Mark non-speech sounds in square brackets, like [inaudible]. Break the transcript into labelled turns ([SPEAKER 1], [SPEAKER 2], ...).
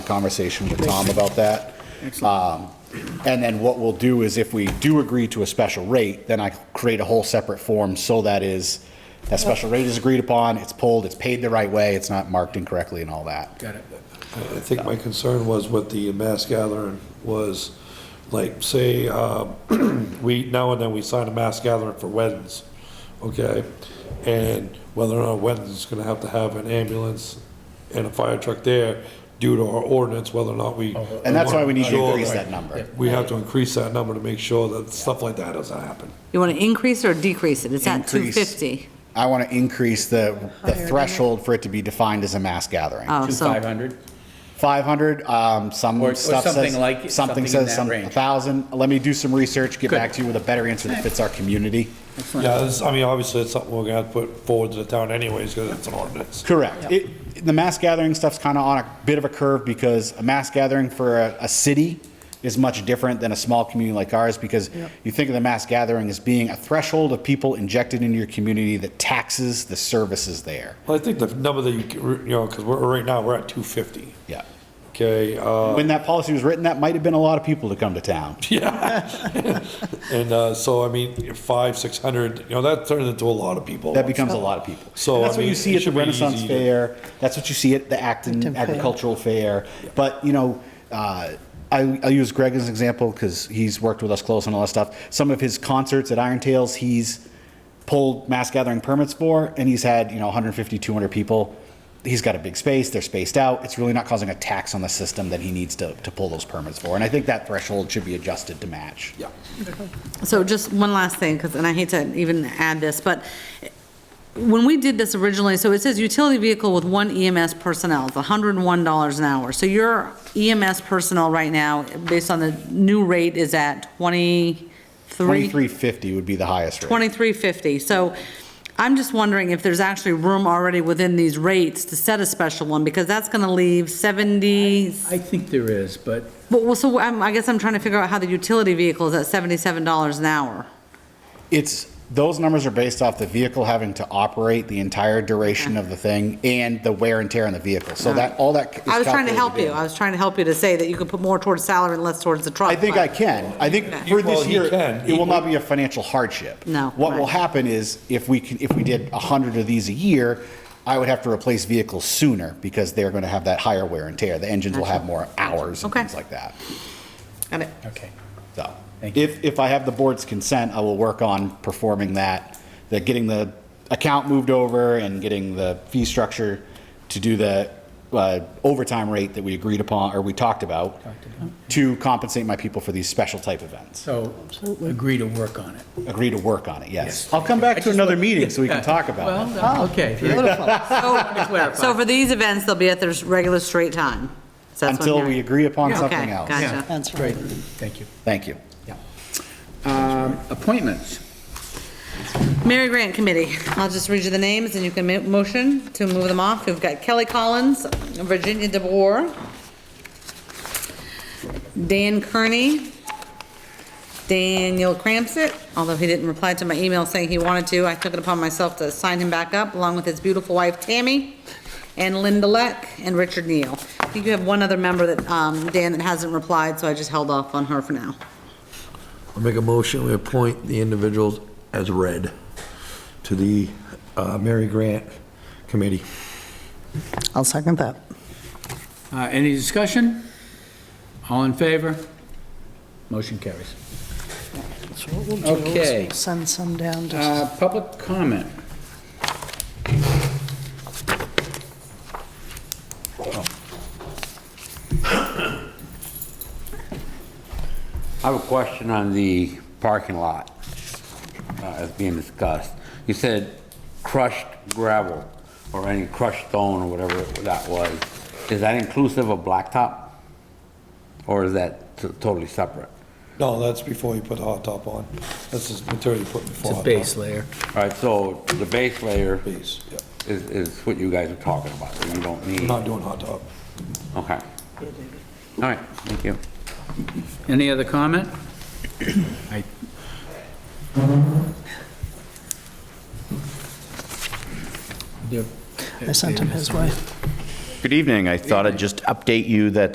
[SPEAKER 1] conversation with Tom about that. Um, And then what we'll do is if we do agree to a special rate, then I create a whole separate form so that is, that special rate is agreed upon, it's pulled, it's paid the right way, it's not marked incorrectly and all that.
[SPEAKER 2] Got it.
[SPEAKER 3] I think my concern was what the mass gathering was, like, say, um, [clears throat] we, now and then we sign a mass gathering for weddings, okay? And whether or not weddings is gonna have to have an ambulance and a fire truck there due to our ordinance, whether or not we.
[SPEAKER 1] Oh, And that's why we need to
[SPEAKER 3] Sure.
[SPEAKER 1] increase that number.
[SPEAKER 3] We have to increase that number to make sure that stuff like that doesn't happen.
[SPEAKER 4] You want to increase or decrease it? It's at
[SPEAKER 1] Increase.
[SPEAKER 4] 250.
[SPEAKER 1] I want to increase the, the threshold for it to be defined as a mass gathering.
[SPEAKER 4] Oh,
[SPEAKER 2] Two
[SPEAKER 4] so,
[SPEAKER 2] 500?
[SPEAKER 1] 500, um, some
[SPEAKER 2] Or- or
[SPEAKER 1] stuff says.
[SPEAKER 2] something like it, something in
[SPEAKER 1] says
[SPEAKER 2] that
[SPEAKER 1] some-
[SPEAKER 2] range.
[SPEAKER 1] 1,000. Let me do some research, get
[SPEAKER 2] Good.
[SPEAKER 1] back to you with a better answer that fits our community.
[SPEAKER 3] Yeah, it's- I mean, obviously, it's something we're gonna have to put forward to the town anyways, because it's an ordinance.
[SPEAKER 1] Correct. It, the mass gathering stuff's kind of on a bit of a curve because a mass gathering for a, a city is much different than a small community like ours because you think of the mass gathering as being a threshold of people injected into your community that taxes the services there.
[SPEAKER 3] Well, I think the number that you, you know, because we're, right now, we're at two fifty,
[SPEAKER 1] Yeah.
[SPEAKER 3] okay? Uh,
[SPEAKER 1] [laughs] When that policy was written, that might have been a lot of people to come to town.
[SPEAKER 3] Yeah. [laughs] And uh, so, I mean, five, six hundred, you know, that turns into a lot of people.
[SPEAKER 1] That becomes a lot of people.
[SPEAKER 3] So,
[SPEAKER 1] And
[SPEAKER 3] I
[SPEAKER 1] that's what
[SPEAKER 3] mean,
[SPEAKER 1] you see
[SPEAKER 3] it
[SPEAKER 1] at the
[SPEAKER 3] should be
[SPEAKER 1] Renaissance
[SPEAKER 3] easy to-
[SPEAKER 1] Fair. That's what you see at the Acton
[SPEAKER 5] Acton Fair.
[SPEAKER 1] Agricultural Fair. But, you know, uh, I, I use Greg as an example because he's worked with us close on all that stuff. Some of his concerts at Iron Tales, he's pulled mass gathering permits for, and he's had, you know, 150, 200 people. He's got a big space, they're spaced out. It's really not causing a tax on the system that he needs to, to pull those permits for. And I think that threshold should be adjusted to match.
[SPEAKER 3] Yeah.
[SPEAKER 4] so just one last thing, because, and I hate to even add this, but when we did this originally, so it says utility vehicle with one EMS personnel, it's $101 an hour. So your EMS personnel right now, based on the new rate, is at 23?
[SPEAKER 1] 2350 would be the highest rate.
[SPEAKER 4] 2350. So I'm just wondering if there's actually room already within these rates to set a special one, because that's going to leave 70,
[SPEAKER 2] I think there is, but
[SPEAKER 4] Well, well, so I'm, I guess I'm trying to figure out how the utility vehicle is at seventy-seven dollars an hour.
[SPEAKER 1] It's, those numbers are based off the vehicle having to operate the entire duration of the thing and the wear and tear on the vehicle. So that, all that. is
[SPEAKER 4] I was trying to
[SPEAKER 1] calculated
[SPEAKER 4] help you,
[SPEAKER 1] in.
[SPEAKER 4] I was trying to help you to say that you could put more towards salary and less towards the truck.
[SPEAKER 1] I think I
[SPEAKER 4] but-
[SPEAKER 1] can. I think for
[SPEAKER 3] Well,
[SPEAKER 1] this
[SPEAKER 3] he
[SPEAKER 1] year,
[SPEAKER 3] can.
[SPEAKER 1] it will not be a financial hardship.
[SPEAKER 4] No,
[SPEAKER 1] What will
[SPEAKER 4] right.
[SPEAKER 1] happen is if we can, if we did 100 of these a year, I would have to replace vehicles sooner because they're going to have that higher wear and tear. The engines will have more hours and
[SPEAKER 4] Okay.
[SPEAKER 1] things like that.
[SPEAKER 4] Got it.
[SPEAKER 2] okay.
[SPEAKER 1] So
[SPEAKER 2] Thank you.
[SPEAKER 1] if, if I have the board's consent, I will work on performing that, that getting the account moved over and getting the fee structure to do the uh, overtime rate that we agreed upon, or we talked about, to compensate my people for these special type events.
[SPEAKER 2] So agree to work on it.
[SPEAKER 1] Agree to work on it, yes. I'll come back to another meeting so we can talk about it.
[SPEAKER 2] Well, okay. [laughs]
[SPEAKER 4] So so for these events, they'll be at their regular straight time. So that's what I'm
[SPEAKER 1] Until we
[SPEAKER 4] hearing.
[SPEAKER 1] agree upon
[SPEAKER 4] Yeah.
[SPEAKER 1] something
[SPEAKER 4] Okay,
[SPEAKER 1] else.
[SPEAKER 4] gotcha.
[SPEAKER 2] Yeah.
[SPEAKER 5] That's
[SPEAKER 2] Great,
[SPEAKER 5] right.
[SPEAKER 2] thank you.
[SPEAKER 1] Thank you.
[SPEAKER 2] Um, Appointments.
[SPEAKER 4] Mary Grant Committee, I'll just read you the names and you can ma- motion to move them off. We've got Kelly Collins, Virginia DeBoer, Dan Kearney, Daniel Cramsett, although he didn't reply to my email saying he wanted to, I took it upon myself to sign him back up, along with his beautiful wife Tammy, and Linda Leck, and Richard Neal. I think you have one other member that, um, Dan, that hasn't replied, so I just held off on her for now.
[SPEAKER 6] I'll make a motion, we appoint the individuals as read to the uh, Mary Grant Committee.
[SPEAKER 5] I'll second that.
[SPEAKER 2] Uh, Any discussion? All in favor? Motion carries.
[SPEAKER 5] That's what we'll do, is
[SPEAKER 2] Okay.
[SPEAKER 5] we'll Send some down to
[SPEAKER 2] Uh, Public comment.
[SPEAKER 7] I have a question on the parking lot uh, as being discussed. You said crushed gravel or any crushed stone or whatever that was. Is that inclusive of blacktop? Or is that t- totally separate?
[SPEAKER 3] No, that's before you put the hot top on. That's just material you put before.
[SPEAKER 2] It's a
[SPEAKER 3] hot
[SPEAKER 2] base
[SPEAKER 3] top.
[SPEAKER 2] layer.
[SPEAKER 7] All right, so the base layer
[SPEAKER 3] Base, yep.
[SPEAKER 7] is, is what you guys are talking about, that you don't
[SPEAKER 3] We're
[SPEAKER 7] need.
[SPEAKER 3] not doing hot top.
[SPEAKER 7] Okay. All right, thank you.
[SPEAKER 2] Any other [coughs] comment? I-
[SPEAKER 5] I sent him his way.
[SPEAKER 8] Good evening. I thought I'd just update you that